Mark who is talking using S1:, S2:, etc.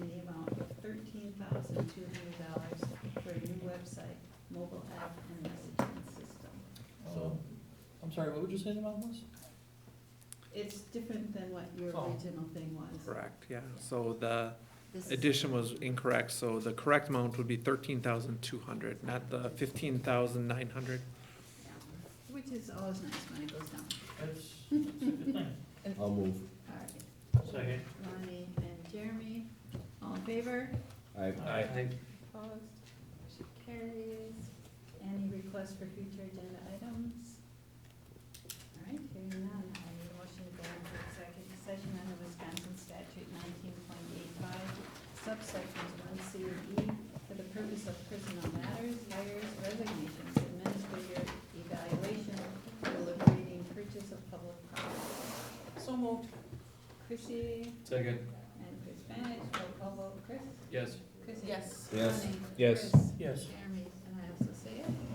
S1: I'm sorry, what would you say the amount was?
S2: It's different than what your
S1: Oh.
S2: original thing was.
S3: Correct, yeah, so the
S2: This is-
S3: addition was incorrect, so the correct amount would be thirteen thousand two hundred, not the fifteen thousand nine hundred.
S2: yeah. Which is always nice when it goes down.
S1: That's, that's a good thing.
S3: Oh.
S4: I'll move.
S2: All right,
S1: Second.
S2: Lonnie and Jeremy, all in favor?
S4: I,
S1: Aye.
S2: Opposed? Motion carries. Any requests for future agenda items? All right, hearing none, I need a motion to go into executive session under Wisconsin statute nineteen point eight five, subsections one C and E, for the purpose of personal matters, hires, resignations, administrative evaluation, deliberating purchase of public property. So moved. Chrissy
S1: Second.
S2: and Chris Benish, roll call vote, Chris?
S1: Yes.
S2: Chris? Yes.
S4: Yes.
S2: Lonnie?
S4: Yes.
S2: Chris?
S1: Yes.